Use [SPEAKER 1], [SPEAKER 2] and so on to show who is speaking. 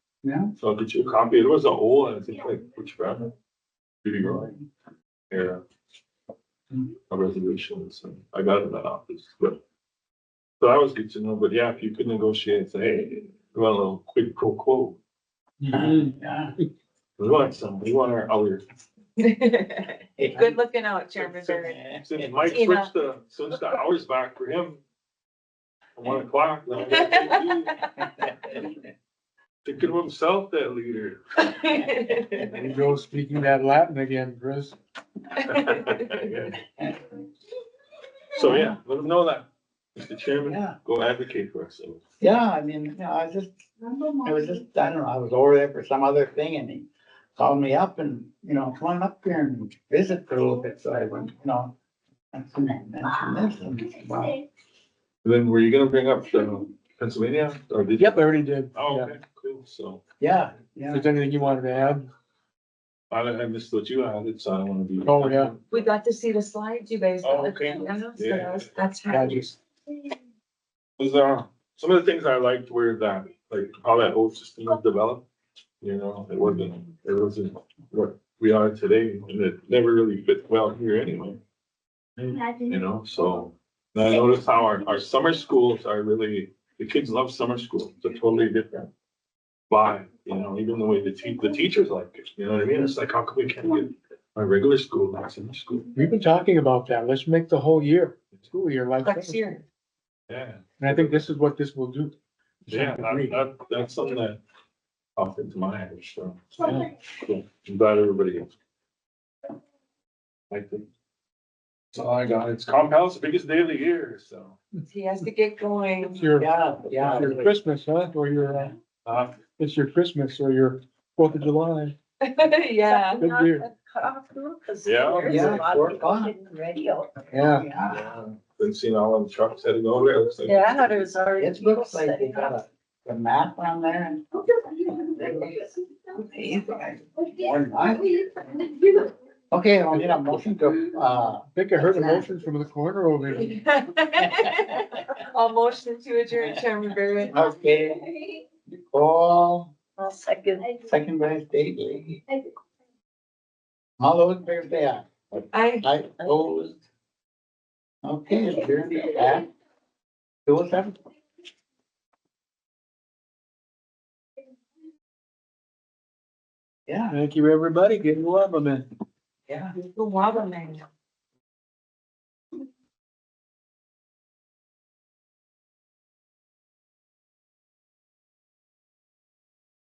[SPEAKER 1] So did you copy? It was an O and I think like which brand? Did you go? Yeah. A reservation, so I got it in that office, but. So that was good to know, but yeah, if you could negotiate, say, hey, we want a little quick pro quo.
[SPEAKER 2] Yeah.
[SPEAKER 1] We want some, we want our hour.
[SPEAKER 3] Good
[SPEAKER 2] Good.
[SPEAKER 3] looking out, Chairman Bernard.
[SPEAKER 1] Since Mike switched the, switched the hours back for him. from One o'clock. then I got to Thinking of himself, that leader.
[SPEAKER 2] There you go, speaking that Latin again, Chris.
[SPEAKER 1] So, yeah, let him know that, Mr. Chairman,
[SPEAKER 4] Yeah,
[SPEAKER 1] go advocate for ourselves.
[SPEAKER 4] yeah, I mean, you know, I was just, I was just, I don't know, I was over there for some other thing and he called me up and, you know, come on up here and visit for a little bit, so I went, you know. And so I mentioned this and, wow,
[SPEAKER 1] Then were you gonna bring up the Pennsylvania or did? you?
[SPEAKER 2] Yep, I already did.
[SPEAKER 1] Oh,
[SPEAKER 2] Yeah.
[SPEAKER 1] okay, cool, so,
[SPEAKER 4] yeah,
[SPEAKER 2] If
[SPEAKER 4] yeah.
[SPEAKER 2] there's anything you wanted to add,
[SPEAKER 1] I, I missed what you added, so I don't wanna be.
[SPEAKER 2] Oh, yeah.
[SPEAKER 3] We got to see the slides, you guys.
[SPEAKER 1] Oh, okay.
[SPEAKER 3] Yeah, so
[SPEAKER 1] Yeah.
[SPEAKER 3] that was- That's
[SPEAKER 2] I
[SPEAKER 3] right.
[SPEAKER 2] just,
[SPEAKER 1] Was, uh, some of the things I liked were that, like, how that whole system was developed. You know, it wasn't, it wasn't what we are today, and it never really fit well here anyway, you know, so. And I noticed how our, our summer schools are really, the kids love summer school, it's a totally different vibe, you know, even the way the te- the teachers like it, you know what I mean? It's like, how come we can't get my regular school, like summer school?
[SPEAKER 2] we've been talking about that. Let's make the whole year, school year like
[SPEAKER 3] Next
[SPEAKER 2] this.
[SPEAKER 3] year.
[SPEAKER 1] Yeah.
[SPEAKER 2] And I think this is what this will do.
[SPEAKER 1] Yeah, that, that, that's something that popped into my head, so. yeah, cool. I'm glad everybody. else. I think. So I got, it's Compound's biggest day of the year, so.
[SPEAKER 3] He has to get going.
[SPEAKER 2] It's your,
[SPEAKER 4] Yeah, yeah.
[SPEAKER 2] it's your Christmas, huh? Or your, uh,
[SPEAKER 1] Uh,
[SPEAKER 2] it's your Christmas or your Fourth of July.
[SPEAKER 3] Yeah.
[SPEAKER 2] Good year.
[SPEAKER 1] Yeah.
[SPEAKER 4] Yeah, four o'clock.
[SPEAKER 2] Yeah.
[SPEAKER 4] Yeah,
[SPEAKER 1] yeah, been seeing all the trucks heading over there, looks like.
[SPEAKER 5] Yeah, I thought it was already.
[SPEAKER 4] it looks like they got a, a map on there and. Okay, I'll get a motion to, uh,
[SPEAKER 2] I think I heard a motion from the corner over there.
[SPEAKER 3] I'll motion to adjourn, Chairman Bernard.
[SPEAKER 4] okay, Nicole,
[SPEAKER 5] I'll second.
[SPEAKER 4] second by Stacy. All those in favor say aye.
[SPEAKER 3] I,
[SPEAKER 4] I opposed. Okay, it's adjourned at two oh seven. Yeah,
[SPEAKER 2] Thank you, everybody. Getting love, man.
[SPEAKER 4] yeah.
[SPEAKER 3] the Wabba man.